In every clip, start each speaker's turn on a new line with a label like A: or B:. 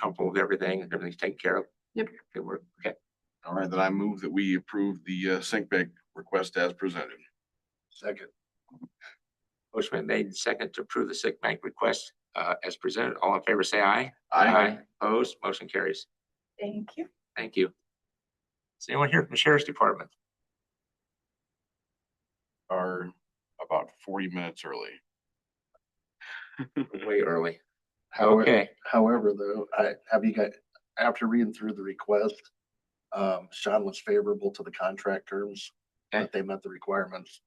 A: comfortable with everything, everything's taken care of.
B: Yep.
A: Okay, we're, okay,
C: All right, then I move that we approve the uh, sink bank request as presented.
D: Second.
A: motion been made, and second to approve the sick bank request, uh, as presented, all in favor, say aye. Opposed, motion carries,
E: Thank you.
A: thank you. Is anyone here from the Sheriff's Department?
C: Are about forty minutes early.
A: Way early,
D: However,
A: okay,
D: however, though, I have you guys, after reading through the request, um, Sean was favorable to the contract terms,
A: Okay.
D: but they met the requirements.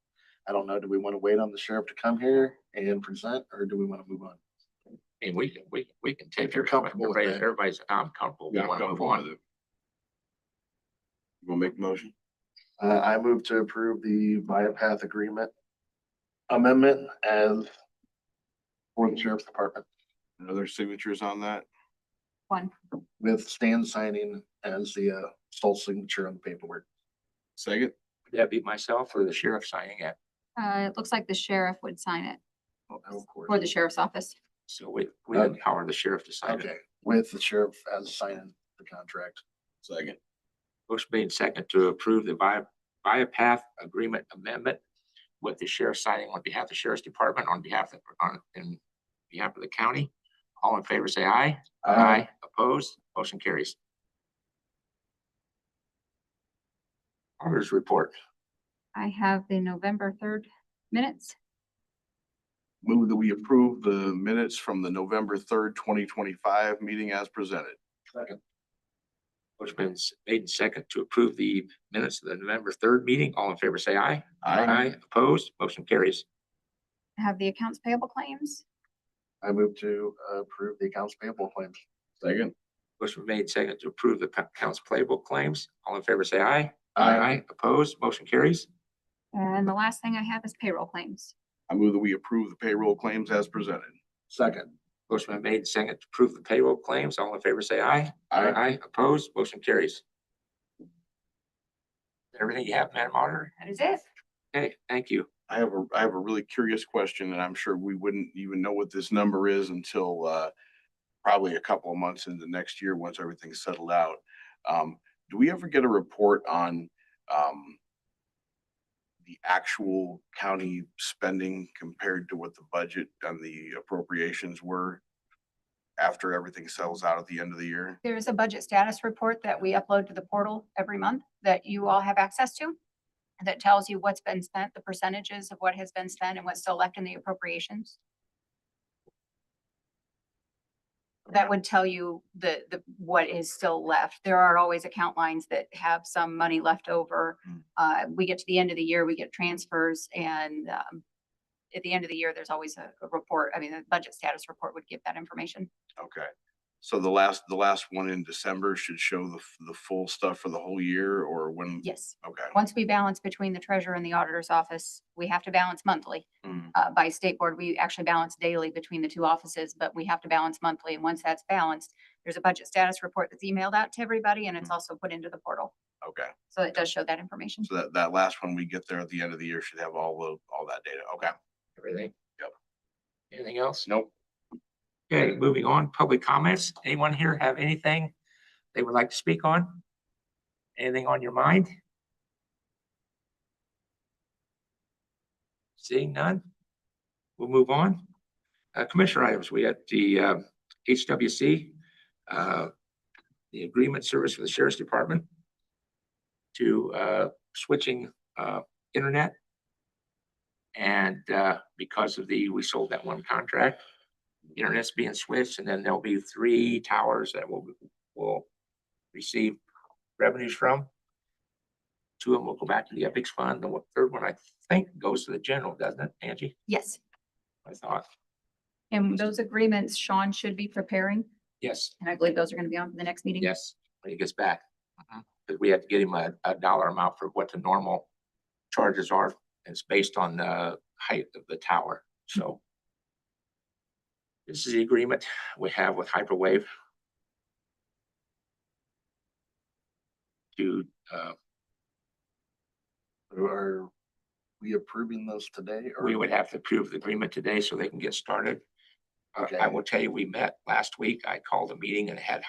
D: I don't know, do we want to wait on the sheriff to come here and present, or do we want to move on?
A: and we, can- we, we can take.
D: If you're
A: your
D: comfortable with that.
A: Everybody's, I'm comfortable, we
C: Yeah, I'm
A: want to move
C: comfortable
A: on.
C: with it. You gonna make the motion?
D: Uh, I move to approve the Viapath agreement amendment as for the sheriff's department
C: Other signatures on that?
E: One.
D: with Stan signing as the, uh, sole signature on the paperwork.
C: Second?
A: Would that be myself or the sheriff signing it?
E: Uh, it looks like the sheriff would sign it
D: Of course.
E: for the sheriff's office.
A: So we, we
D: Okay.
A: empower the sheriff to sign it.
D: Okay, with the sheriff as signing the contract.
C: Second.
A: Motion made second to approve the via, via path agreement amendment with the sheriff signing on behalf of the sheriff's department, on behalf of, on, in behalf of the county. All in favor, say aye. Opposed, motion carries. Auditor's report.
E: I have the November third minutes.
C: Move that we approve the minutes from the November third, twenty twenty-five meeting as presented.
A: Motion been s- made and second to approve the minutes of the November third meeting. All in favor, say aye. Opposed, motion carries.
E: I have the accounts payable claims.
D: I move to approve the accounts payable claims.
C: Second.
A: Motion made second to approve the pa- accounts payable claims. All in favor, say aye.
C: Aye.
A: Opposed, motion carries.
E: And the last thing I have is payroll claims.
C: I move that we approve the payroll claims as presented.
D: Second.
A: Motion been made, and seconded to approve the payroll claims. All in favor, say aye. Aye. Opposed, motion carries. Everything you have, Madam Auditor?
E: That is it.
A: Okay, thank you.
C: I have a, I have a really curious question and I'm sure we wouldn't even know what this number is until, uh, probably a couple of months into next year, once everything's settled out. Um, do we ever get a report on, um, the actual county spending compared to what the budget and the appropriations were after everything settles out at the end of the year?
E: There is a budget status report that we upload to the portal every month that you all have access to. That tells you what's been spent, the percentages of what has been spent and what's still left in the appropriations. That would tell you the, the, what is still left. There are always account lines that have some money left over.
C: Mm.
E: Uh, we get to the end of the year, we get transfers and, um, at the end of the year, there's always a, a report. I mean, the budget status report would give that information.
C: Okay, so the last, the last one in December should show the, f- the full stuff for the whole year or when?
E: Yes.
C: Okay.
E: once we balance between the treasurer and the auditor's office, we have to balance monthly.
C: Mm.
E: Uh, by state board, we actually balance daily between the two offices, but we have to balance monthly. And once that's balanced, there's a budget status report that's emailed out to everybody and it's
C: Mm.
E: also put into the portal.
C: Okay,
E: So it does show that information.
C: so that, that last one we get there at the end of the year should have all the, all that data. Okay,
A: Everything?
C: Yep.
A: Anything else?
C: nope.
A: Okay, moving on, public comments. Anyone here have anything they would like to speak on? Anything on your mind? Seeing none, we'll move on. Uh, Commissioner items, we had the uh, HWC, uh, the agreement service for the Sheriff's Department to uh, switching uh, internet. And uh, because of the, we sold that one contract internet's being switched, and then there'll be three towers that will, will receive revenues from. Two of them will go back to the Epics Fund, the one- third one, I think, goes to the general, doesn't it, Angie?
E: Yes.
A: I thought,
E: And those agreements Sean should be preparing,
A: yes,
E: and I believe those are going to be on for the next meeting.
A: yes, when he gets back. Because we have to get him a, a dollar amount for what the normal charges are, and it's based on the height of the tower, so. This is the agreement we have with Hyperwave to, uh,
D: Are we approving those today? or-
A: we would have to approve the agreement today so they can get started. Uh, I
D: Okay.
A: will tell you, we met last week. I called a meeting and had